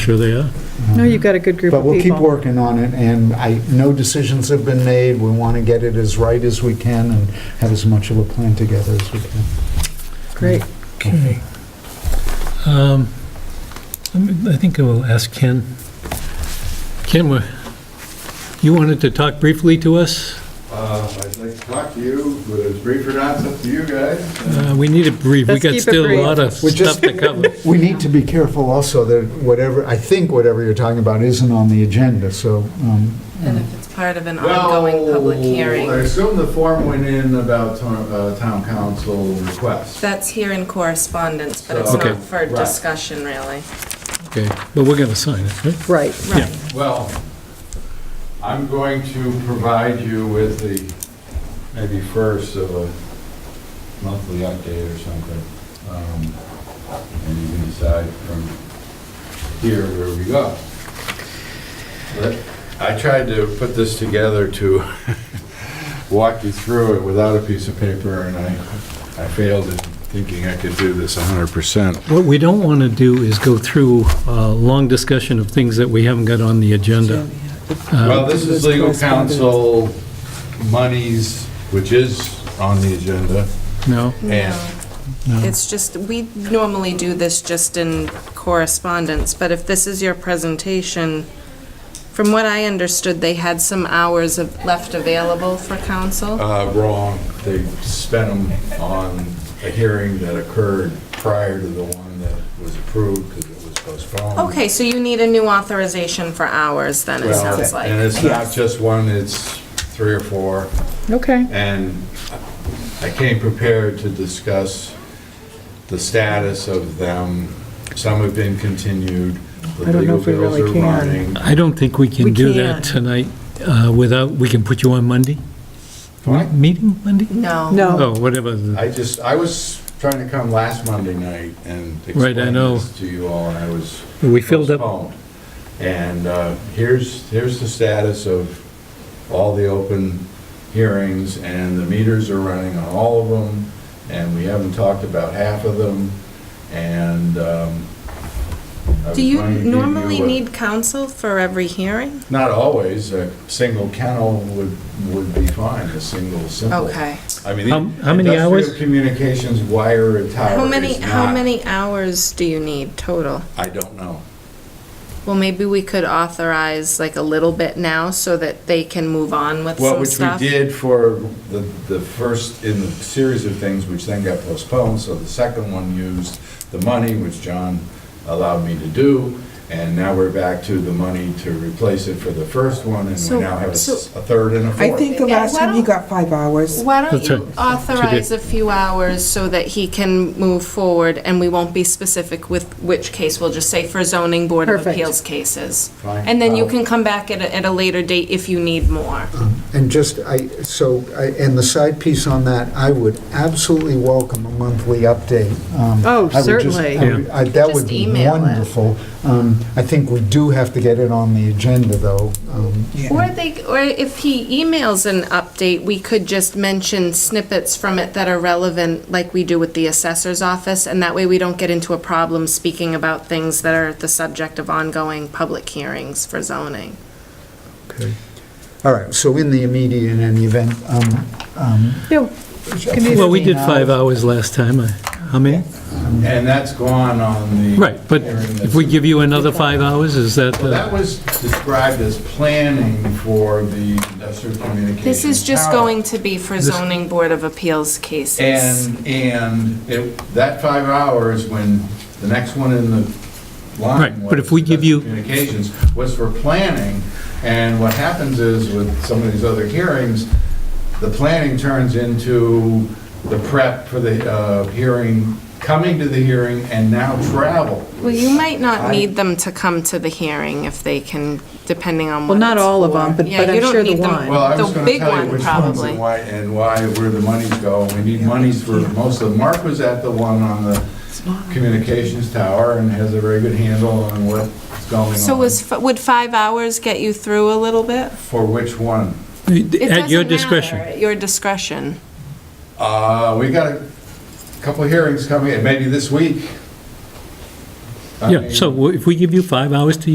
Sure they are. No, you've got a good group of But people. we'll keep working on it, and I, no decisions have been made. We want to get it as right as we can and have as much of a plan together as we can. Great. Okay. Um, let me- I think I will ask Ken. Ken, wha- you wanted to talk briefly to us? Uh, I'd like to talk to you, whether it's brief or not, it's up to you guys. Uh, We need a brief. We Let's got keep it still a brief. lot of We just- stuff to cover. We need to be careful also that whatever, I think whatever you're talking about isn't on the agenda, so, um, And if it's part of an ongoing Well, public I hearing, assume the form went in about to- uh, town council request. that's here in correspondence, but it's Okay. not for Right. discussion, really. Okay, but we're going to sign it, right? Right. Yeah. Right. Well, I'm going to provide you with the, maybe first of a monthly update or something. Um, And you can decide from here where we go. But I tried to put this together to walk you through it without a piece of paper, and I, I failed in thinking I could do this 100%. What we don't want to do is go through a long discussion of things that we haven't got on the agenda. Uh, Well, this is legal counsel monies, which is on the agenda, No? and, No. It's just, we normally do this just in correspondence, but if this is your presentation, from what I understood, they had some hours of- left available for council. uh, wrong, they spent them on a hearing that occurred prior to the one that was approved, because it was postponed. Okay, so you need a new authorization for hours, then, it Uh-huh. Well, sounds And like. it's not just one, it's three or four, Okay. and I came prepared to discuss the status of them. Some have been continued, I the don't know legal if we bills really are can. running. I don't think we We can do that can't. tonight uh, without, we can put you on Monday? Fine. Meeting Monday? No. No. Oh, whatever. the- I just, I was trying to come last Monday night and Right, I explain know. this to you all, and I was We filled up, postponed. And uh, here's, here's the status of all the open hearings, and the meters are running on all of them, and we haven't talked about half of them, and um, I was Do you going to give you normally a- need counsel for every hearing? Not always, a single kennel would, would be fine, a single simple. Okay. I mean, How- how many industrial hours? Communications wire and tower How many, is how not- many hours do you need total? I don't know. Well, maybe we could authorize like a little bit now so that they can move on with Well, some which we stuff. did for the, the first in the series of things, which then got postponed, so the second one used the money, which John allowed me to do, and now we're back to the money to replace it for the first one, and we So- now have a so- s- a third and a I fourth. think the Yeah, last why time he don't- got five hours. Why don't That's you right. authorize a few hours so that he can move forward and we won't be specific with which case? We'll just say for zoning board of Perfect. appeals cases. Fine. And then you Uh, can come back at a, at a later date if you need more. and just, I, so, I- and the side piece on that, I would absolutely welcome a monthly update. Um, Oh, I would just- certainly. I would- I- That would Just be email it. wonderful. Um, I think we do have to get it on the agenda, though. Um, Or they, or if he emails an update, we could just mention snippets from it that are relevant, like we do with the assessor's office, and that way we don't get into a problem speaking about things that are the subject of ongoing public hearings for zoning. okay. All right, so in the immediate and event, um, um, Yeah, well, we did five hours last time. I- How many? And that's gone on the. Right, but hearing if we that's- give you another five hours, is that, Well, that uh, was described as planning for the industrial communications. This is just tower. going to be for zoning board of appeals cases. And, and it- that five hours, when the next one in the line Right, was... but if we give you- Communications, was for planning, and what happens is with some of these other hearings, the planning turns into the prep for the uh, hearing, coming to the hearing, and now travel. Well, you might not I- need them to come to the hearing if they can, depending on well, what not it's all of for. them, but Yeah, but you I'm don't sure the need them. one. Well, I was going The to big tell one, you which ones probably. and why, and why, where the monies go. We need monies for most of them. Mark was at the one on the communications tower and has a very good handle on what's going on. So was, f- would five hours get you through a little bit? For which one? It at your doesn't matter, discretion? At your discretion. Uh, we got a couple of hearings coming, and maybe this week. I Yeah, mean- so if we give you five hours to